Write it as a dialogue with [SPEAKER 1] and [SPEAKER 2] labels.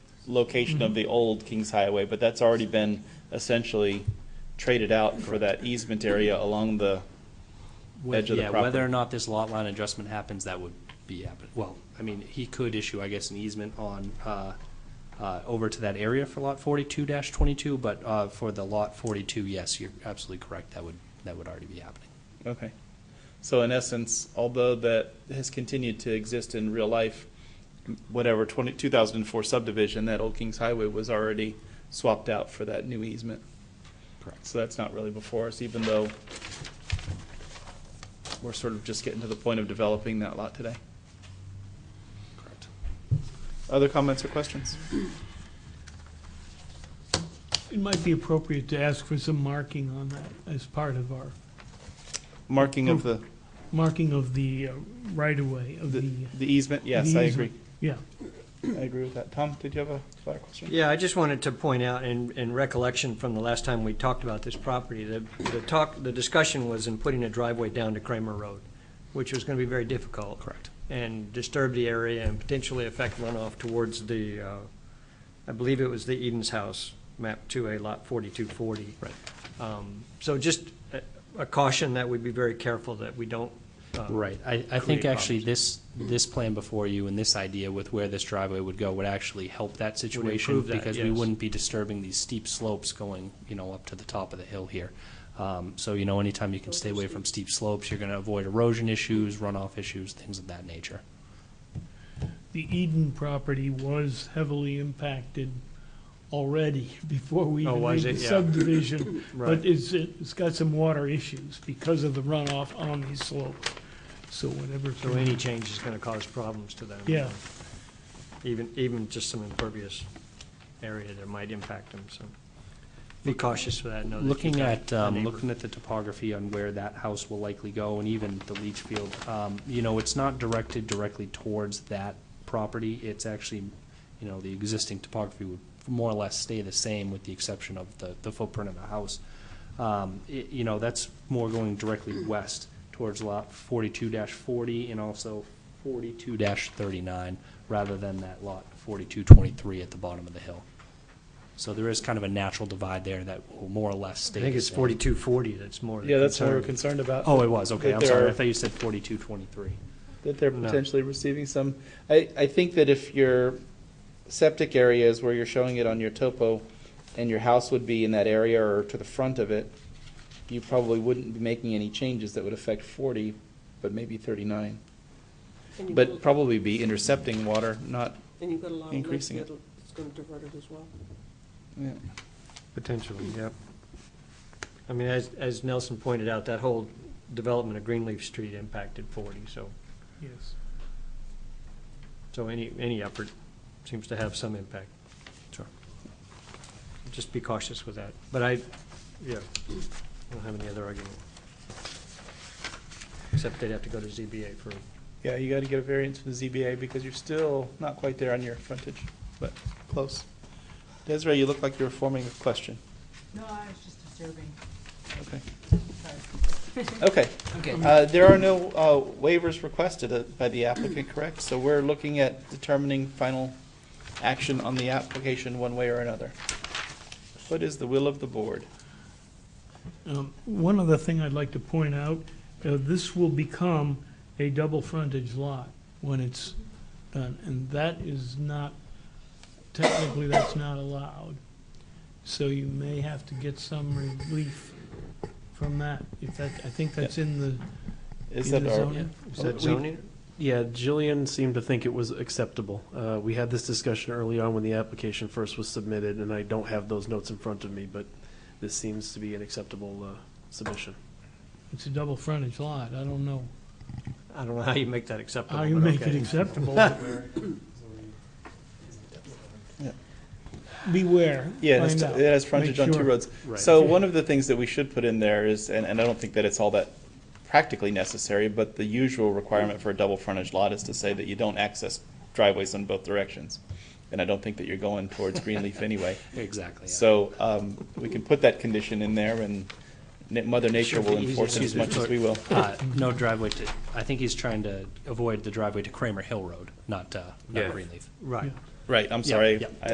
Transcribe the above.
[SPEAKER 1] location of the old Kings Highway, but that's already been essentially traded out for that easement area along the edge of the
[SPEAKER 2] Yeah, whether or
[SPEAKER 1] property.
[SPEAKER 2] not this lot line adjustment happens, that would be happen, well, I mean, he could issue, I guess, an easement on, uh, uh, over to that area for lot forty-two twenty-two, but, uh, for the lot forty-two, yes, you're absolutely correct, that would, that would already be happening.
[SPEAKER 1] Okay. So in essence, although that has continued to exist in real life, whatever 20 2004 subdivision, that old Kings Highway was already swapped out for that new easement.
[SPEAKER 2] Correct.
[SPEAKER 1] So that's not really before us, even though we're sort of just getting to the point of developing that lot today.
[SPEAKER 2] Correct.
[SPEAKER 1] Other comments or questions?
[SPEAKER 3] It might be appropriate to ask for some marking on that as part of our,
[SPEAKER 1] Marking of the,
[SPEAKER 3] marking of the uh, right-of-way of
[SPEAKER 1] the
[SPEAKER 3] the,
[SPEAKER 1] the easement, yes, I agree.
[SPEAKER 3] yeah.
[SPEAKER 1] I agree with that. Tom, did you have a fire question?
[SPEAKER 4] Yeah, I just wanted to point out, in, in recollection from the last time we talked about this property, the, the talk, the discussion was in putting a driveway down to Kramer Road, which was gonna be very difficult.
[SPEAKER 2] Correct.
[SPEAKER 4] And disturb the area and potentially affect runoff towards the, uh, I believe it was the Eden's House, map two A, lot forty-two forty.
[SPEAKER 2] Right.
[SPEAKER 4] Um, so just a- a caution that we be very careful that we don't. uh,
[SPEAKER 2] Right, I, I think
[SPEAKER 4] Create
[SPEAKER 2] actually
[SPEAKER 4] problems.
[SPEAKER 2] this, this plan before you and this idea with where this driveway would go would actually help that situation
[SPEAKER 4] improve that,
[SPEAKER 2] because we
[SPEAKER 4] yes.
[SPEAKER 2] wouldn't be disturbing these steep slopes going, you know, up to the top of the hill here. Um, so, you know, anytime you can stay away from steep slopes, you're gonna avoid erosion issues, runoff issues, things of that nature.
[SPEAKER 3] The Eden property was heavily impacted already before we
[SPEAKER 4] Oh,
[SPEAKER 3] even made
[SPEAKER 4] was
[SPEAKER 3] the
[SPEAKER 4] it? Yeah.
[SPEAKER 3] subdivision. But
[SPEAKER 4] Right.
[SPEAKER 3] it's, it's got some water issues because of the runoff on these slopes, so whatever.
[SPEAKER 4] So any change is gonna cause problems to them.
[SPEAKER 3] Yeah.
[SPEAKER 4] Even, even just some impervious area that might impact them, so be cautious with that, know that you
[SPEAKER 2] Looking
[SPEAKER 4] got
[SPEAKER 2] at,
[SPEAKER 4] a
[SPEAKER 2] um,
[SPEAKER 4] neighbor.
[SPEAKER 2] looking at the topography on where that house will likely go and even the leach field, um, you know, it's not directed directly towards that property. It's actually, you know, the existing topography would more or less stay the same with the exception of the, the footprint of the house. Um, it, you know, that's more going directly west towards lot forty-two forty and also forty-two thirty-nine rather than that lot forty-two twenty-three at the bottom of the hill. So there is kind of a natural divide there that will more or less
[SPEAKER 4] I
[SPEAKER 2] stay.
[SPEAKER 4] think
[SPEAKER 2] the
[SPEAKER 4] it's
[SPEAKER 2] same.
[SPEAKER 4] forty-two forty that's more the
[SPEAKER 1] Yeah, that's what we're
[SPEAKER 4] concern.
[SPEAKER 1] concerned about.
[SPEAKER 2] Oh, it was, okay,
[SPEAKER 1] That
[SPEAKER 2] I'm
[SPEAKER 1] there
[SPEAKER 2] sorry,
[SPEAKER 1] are-
[SPEAKER 2] I thought you said forty-two twenty-three.
[SPEAKER 1] that they're
[SPEAKER 4] No.
[SPEAKER 1] potentially receiving some. I, I think that if your septic area is where you're showing it on your topo and your house would be in that area or to the front of it, you probably wouldn't be making any changes that would affect forty, but maybe thirty-nine.
[SPEAKER 5] And you've
[SPEAKER 1] But
[SPEAKER 5] got a-
[SPEAKER 1] probably be intercepting water, not,
[SPEAKER 5] And you've got a lot of lakes
[SPEAKER 1] increasing it.
[SPEAKER 5] that'll, it's gonna divert it as well.
[SPEAKER 1] yeah.
[SPEAKER 4] Potentially, yep. I mean, as, as Nelson pointed out, that whole development of Greenleaf Street impacted forty, so,
[SPEAKER 3] Yes.
[SPEAKER 4] so any, any effort seems to have some impact.
[SPEAKER 2] Sure.
[SPEAKER 4] Just be cautious with that, but I, yeah, I don't have any other argument. Except they'd have to go to ZBA for,
[SPEAKER 1] Yeah, you gotta get a variance from the ZBA because you're still not quite there on your frontage, but close. Desiree, you look like you were forming a question.
[SPEAKER 6] No, I was just observing.
[SPEAKER 1] Okay.
[SPEAKER 6] Sorry.
[SPEAKER 1] Okay. Uh, There are no uh, waivers requested uh, by the applicant, correct? So we're looking at determining final action on the application one way or another. What is the will of the board?
[SPEAKER 3] Um, One other thing I'd like to point out, uh, this will become a double frontage lot when it's done, and that is not, technically, that's not allowed. So you may have to get some relief from that, if that, I think that's in the,
[SPEAKER 1] Is
[SPEAKER 3] in
[SPEAKER 1] that
[SPEAKER 3] the
[SPEAKER 1] our,
[SPEAKER 3] zoning.
[SPEAKER 4] is that zoning?
[SPEAKER 7] Yeah, Jillian seemed to think it was acceptable. Uh, We had this discussion early on when the application first was submitted, and I don't have those notes in front of me, but this seems to be an acceptable uh, submission.
[SPEAKER 3] It's a double frontage lot, I don't know
[SPEAKER 4] I don't know how you make that acceptable.
[SPEAKER 3] how you
[SPEAKER 4] but
[SPEAKER 3] make it
[SPEAKER 4] okay.
[SPEAKER 3] acceptable. Beware,
[SPEAKER 1] yeah, it has-
[SPEAKER 3] find
[SPEAKER 1] it
[SPEAKER 3] out.
[SPEAKER 1] has frontage on
[SPEAKER 3] Make
[SPEAKER 1] two
[SPEAKER 3] sure.
[SPEAKER 1] roads.
[SPEAKER 7] Right.
[SPEAKER 1] So one of the things that we should put in there is, and and I don't think that it's all that practically necessary, but the usual requirement for a double frontage lot is to say that you don't access driveways in both directions. And I don't think that you're going towards Greenleaf anyway.
[SPEAKER 2] Exactly. yeah.
[SPEAKER 1] So um, we can put that condition in there, and Na- Mother Nature will enforce it as much as we will.
[SPEAKER 2] Uh, no driveway to, I think he's trying to avoid the driveway to Kramer Hill Road, not, uh, not Greenleaf.
[SPEAKER 4] Right.
[SPEAKER 1] Right, I'm
[SPEAKER 2] Yeah,
[SPEAKER 1] sorry.
[SPEAKER 2] yeah.
[SPEAKER 1] I-